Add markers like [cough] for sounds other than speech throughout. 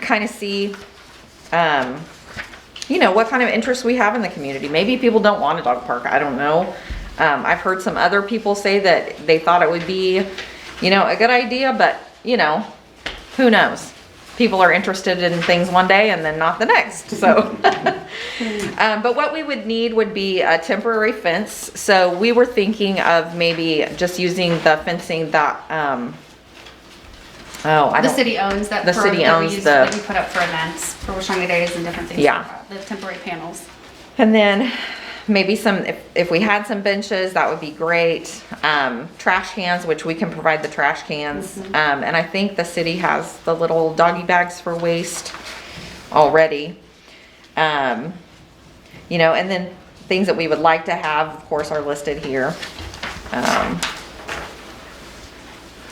kind of see, um, you know, what kind of interest we have in the community. Maybe people don't want a dog park, I don't know. Um, I've heard some other people say that they thought it would be, you know, a good idea, but, you know, who knows? People are interested in things one day and then not the next, so. [laughs] Um, but what we would need would be a temporary fence, so we were thinking of maybe just using the fencing that, um, oh, I The don't, city owns that. The for- city that we owns use- the- That we put up for events, for Washanga Days and different things. like Yeah. that, The temporary panels. and then maybe some, if, if we had some benches, that would be great. Um, trash cans, which we can provide the trash cans, um, and I think the city has the little doggy bags for waste already. Um, you know, and then things that we would like to have, of course, are listed here. Um,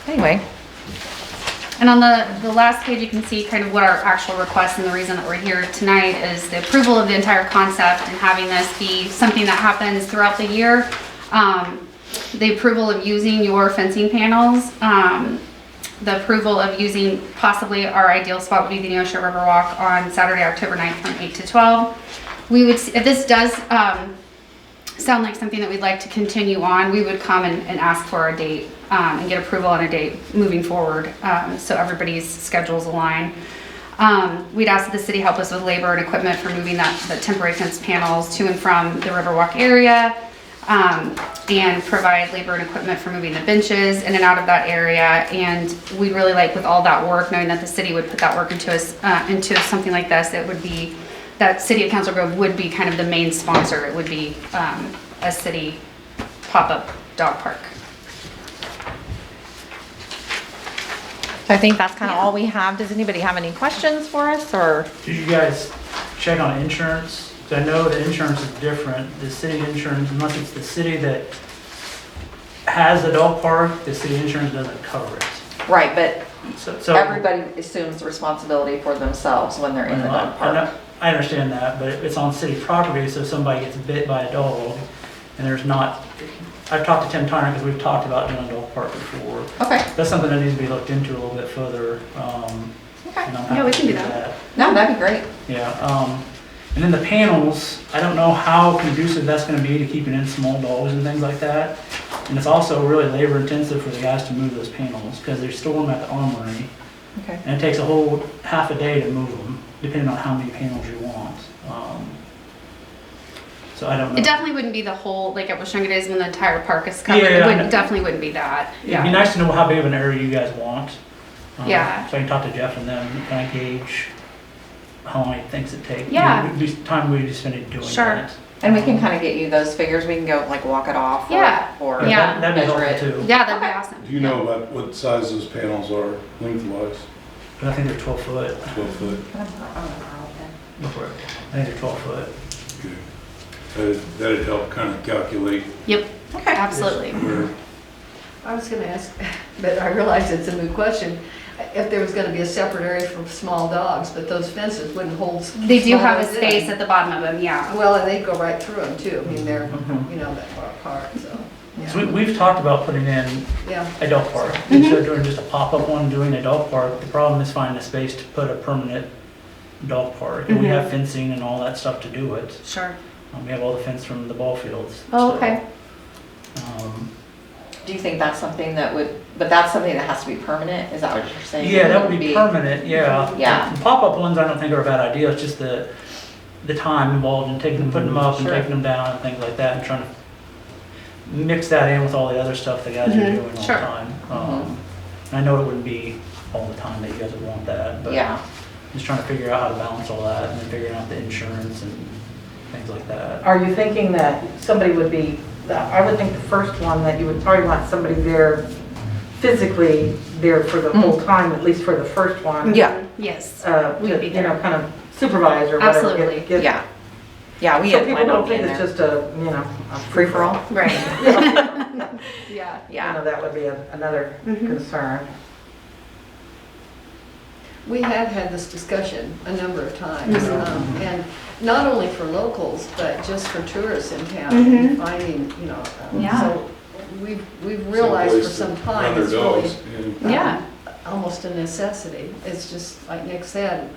Anyway, And on the, the last page, you can see kind of what our actual request and the reason that we're here tonight is the approval of the entire concept and having this be something that happens throughout the year. Um, The approval of using your fencing panels, um, the approval of using possibly our ideal spot would be the Neosho River Walk on Saturday, October 9th from 8 to 12. We would, s- if this does, um, sound like something that we'd like to continue on, we would come and, and ask for a date um, and get approval on a date moving forward um, so everybody's schedules align. Um, we'd ask that the city help us with labor and equipment for moving that, the temporary fence panels to and from the Riverwalk area um, and provide labor and equipment for moving the benches in and out of that area. And we'd really like with all that work, knowing that the city would put that work into us, uh, into something like this, it would be, that City of Council Grove would be kind of the main sponsor. It would be, um, a city pop-up dog park. So I think that's kind of all we have. Does anybody have any questions for us or? Did you guys check on insurance? 'Cause I know the insurance is different, the city insurance, unless it's the city that has a dog park, the city insurance doesn't cover it. Right, but So- so- everybody assumes responsibility for themselves when they're in the dog I park. know- I understand that, but it's on city property, so if somebody gets bit by a dog, and there's not, I've talked to Tim Tyner, because we've talked about doing a dog park before. Okay, That's something that needs to be looked into a little bit further, um, and I'm okay. happy Yeah, we to can do do that. that. No, that'd be great. Yeah, um, and then the panels, I don't know how conducive that's gonna be to keeping in small dogs and things like that. And it's also really labor intensive for the guys to move those panels, because they store them at the armory, Okay. and it takes a whole half a day to move them, depending on how many panels you want. Um, So I don't know. It definitely wouldn't be the whole, like at Washunga Days when the entire park is covered. Yeah, It yeah, wouldn't, yeah. definitely wouldn't be that. It'd be Yeah. nice to know how big of an area you guys want. um, Yeah. So I can talk to Jeff and them, and kind of gauge how long he thinks it takes. Yeah. The time we spend doing Sure. that. And we can kind of get you those figures. We can go like walk it off. or- Yeah. Or Yeah. That- That'd be measure helpful it. too. Yeah, that'd be awesome. Do you know about what size those panels are lengthwise? But I think they're 12 foot. Twelve foot? I think they're 12 foot. Okay. That'd- That'd help kind of calculate Yep, Okay. absolutely. where, I was gonna ask, [laughs] but I realize it's a new question, if there was gonna be a separate area for small dogs, but those fences wouldn't hold. s- They do have a small dogs in. space at the bottom of them, yeah. Well, and they go right through them too, I mean, they're, Mm-hmm. you know, that far apart, so, So we, yeah. we've talked about putting in yeah. a dog park. Instead of doing just a pop-up one, doing a dog park, the problem is finding a space to put a permanent dog park. And we have fencing and all that stuff to do it. Sure. Um, We have all the fence from the ball fields. Oh, so, okay. um, Do you think that's something that would, but that's something that has to be permanent? Is that what you're saying? It Yeah, that would be permanent, yeah. Yeah. The Pop-up ones, I don't think are a bad idea, it's just the, the time involved in taking them, putting them up and Sure. taking them down and things like that, and trying to mix that in with all the other stuff the guys are doing all the Sure. time. Um, and I know it wouldn't be all the time that you guys would want that, but Yeah. just trying to figure out how to balance all that, and then figuring out the insurance and things like that. Are you thinking that somebody would be, I would think the first one, that you would probably want somebody there physically there for the whole time, at least for the first one. Yeah, Yes. Uh, We'd to, be you know, there. kind of supervise or whatever. get- Absolutely. get- yeah. Yeah, we So had people planned don't on being think it's there. just a, you know, a Free for all? Right. Yeah, Yeah. You know, Yeah. that would be a- another concern. We have had this discussion a number of times, Mm-hmm. um, and not only for locals, but just for tourists in town, finding, you know, um, Mm-hmm. Yeah. so we've, we've realized for someplace some to time, Run it's their really dogs. yeah. Yeah. almost a necessity. It's just, like Nick said,